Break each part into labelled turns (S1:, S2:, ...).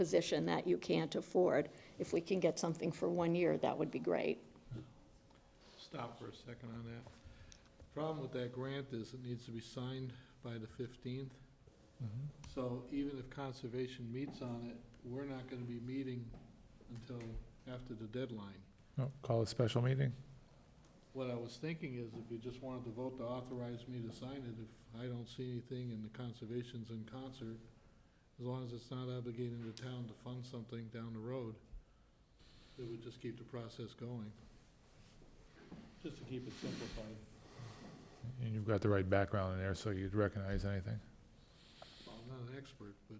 S1: position that you can't afford. If we can get something for one year, that would be great.
S2: Stop for a second on that. Problem with that grant is it needs to be signed by the fifteenth.
S3: Mm-hmm.
S2: So even if conservation meets on it, we're not gonna be meeting until after the deadline.
S3: No, Oh, Call a special meeting.
S2: What I was thinking is if you just wanted to vote to authorize me to sign it, if I don't see anything and the conservation's in concert, as long as it's not obligating the town to fund something down the road, it would just keep the process going. Just to keep it simplified.
S3: And you've got the right background in there, so you'd recognize anything.
S2: Well, I'm not an expert, but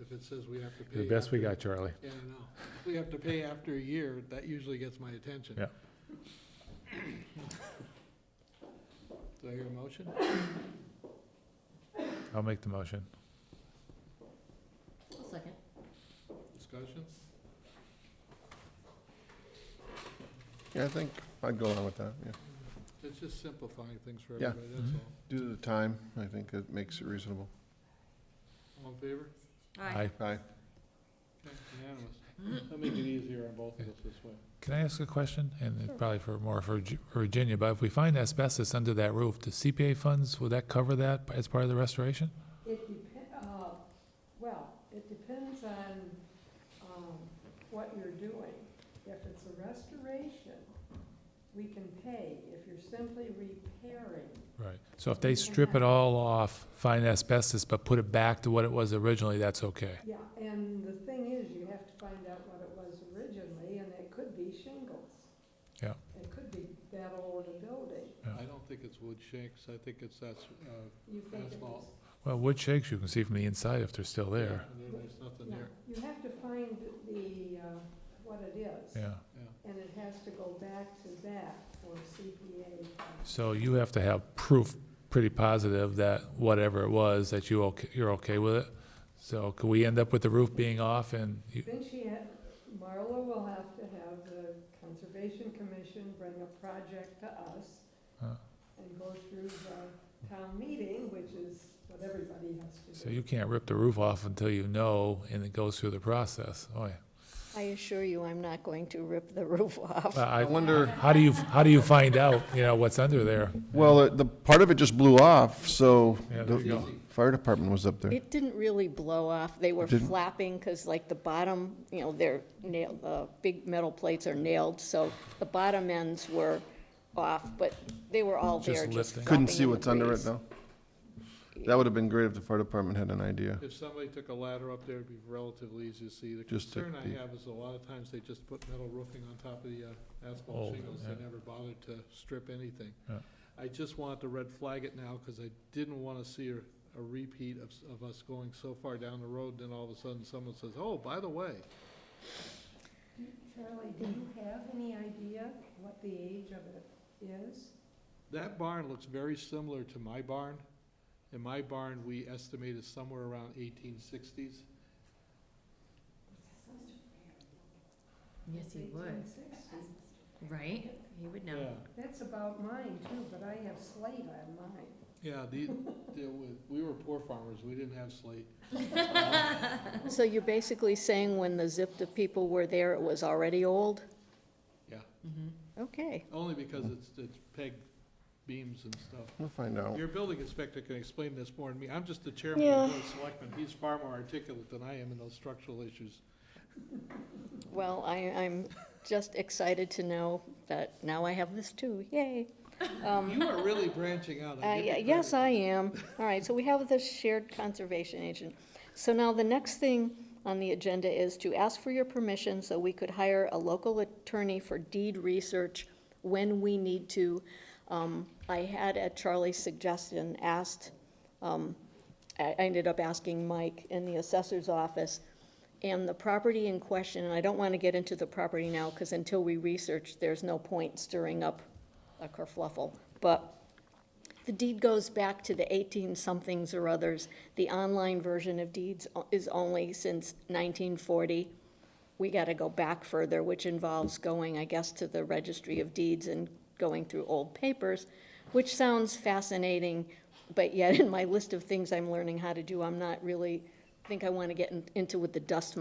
S2: if it says we have to pay.
S3: The best we
S2: after-
S3: got, Charlie.
S2: Yeah, I know. If We have to pay after a year, that usually gets my attention.
S3: Yeah.
S2: Do I hear a motion?
S3: I'll make the motion.
S1: second.
S2: Discussion?
S4: Yeah, I think I'd go along with that, yeah.
S2: It's just simplifying things for
S4: Yeah.
S2: everybody, that's
S3: Mhm.
S2: all.
S4: Due to the time, I think it makes it reasonable.
S2: All in favor?
S3: Aye.
S4: Aye.
S2: Okay, Unanimous. That'll make it easier on both of us this way.
S3: Can I ask a question? And it's probably for more for Gi- for Virginia, but if we find asbestos under that roof, the CPA funds, will that cover that as part of the restoration?
S5: It depend, uh, well, it depends on, um, what you're doing. If it's a restoration, we can pay. If you're simply repairing,
S3: Right. So if they strip it all off, find asbestos, but put it back to what it was originally, that's okay?
S5: yeah, and the thing is, you have to find out what it was originally, and it could be shingles.
S3: Yeah.
S5: It could be that old a building.
S3: Yeah.
S2: I don't think it's wood shakes, I think it's that's, uh,
S5: You think it was.
S2: Asphalt
S3: Well, wood shakes, you can see from the inside if they're still there.
S2: and There's nothing
S5: No,
S2: there,
S5: you have to find the, uh, what it is.
S3: Yeah.
S2: yeah.
S5: And it has to go back to that for CPA.
S3: So you have to have proof pretty positive that whatever it was, that you okay, you're okay with it? So could we end up with the roof being off and, you-
S5: Then she had, Marla will have to have the Conservation Commission bring a project to us
S3: Huh.
S5: and go through the town meeting, which is what everybody has
S3: so
S5: to do.
S3: you can't rip the roof off until you know and it goes through the process? Oh, yeah.
S1: I assure you, I'm not going to rip the roof off.
S3: Well,
S4: I
S3: I-
S4: wonder,
S3: How do you, how do you find out, you know, what's under there?
S4: well, it- the, part of it just blew off, so
S3: Yeah, there you
S4: the
S3: go.
S4: fire department was up there.
S1: It didn't really blow off. They were
S4: It didn't?
S1: flapping because like the bottom, you know, they're nailed, the big metal plates are nailed, so the bottom ends were off, but they were all
S3: Just
S1: there, just
S3: lifting.
S4: Couldn't
S1: flopping
S4: see
S1: in the
S4: what's under it,
S1: breeze.
S4: though. That would have been great if the fire department had an idea.
S2: If somebody took a ladder up there, it'd be relatively easy to see. The
S4: Just take
S2: concern I
S4: the-
S2: have is a lot of times they just put metal roofing on top of the uh,
S3: Oh,
S2: asphalt shingles.
S3: yeah.
S2: They never bothered to strip anything.
S3: Yeah.
S2: I just want to red flag it now because I didn't want to see a a repeat of, s- of us going so far down the road, then all of a sudden someone says, oh, by the way,
S5: Charlie, do you have any idea what the age of it is?
S2: that barn looks very similar to my barn. In my barn, we estimated somewhere around eighteen sixties.
S6: Yes, he would,
S5: 1860.
S6: right? He would know.
S5: That's about mine too, but I have slate on mine.
S2: Yeah, the, the- we were poor farmers. We didn't have slate.
S1: So you're basically saying when the Zipta people were there, it was already old?
S2: Yeah.
S1: Okay.
S2: Only because it's, it's peg beams and stuff.
S4: We'll find out.
S2: Your building inspector can explain this more than me. I'm just the chairman of the Board of Selectmen. He's far more articulate than I am in those structural issues.
S1: Well, I, I'm just excited to know that now I have this too. Yay.
S2: You are really branching out.
S1: Um, Uh,
S2: I give you
S1: yeah, Yes,
S2: credit.
S1: I am. All right, so we have the shared conservation agent. So now the next thing on the agenda is to ask for your permission so we could hire a local attorney for deed research when we need to. Um, I had, at Charlie's suggestion, asked, um, I I ended up asking Mike in the assessor's office, and the property in question, and I don't want to get into the property now, because until we research, there's no point stirring up a kerfluffle. But the deed goes back to the eighteen-somethings or others. The online version of deeds o- is only since nineteen forty. We gotta go back further, which involves going, I guess, to the registry of deeds and going through old papers, which sounds fascinating, but yet in my list of things I'm learning how to do, I'm not really, think I wanna get in- into with the dust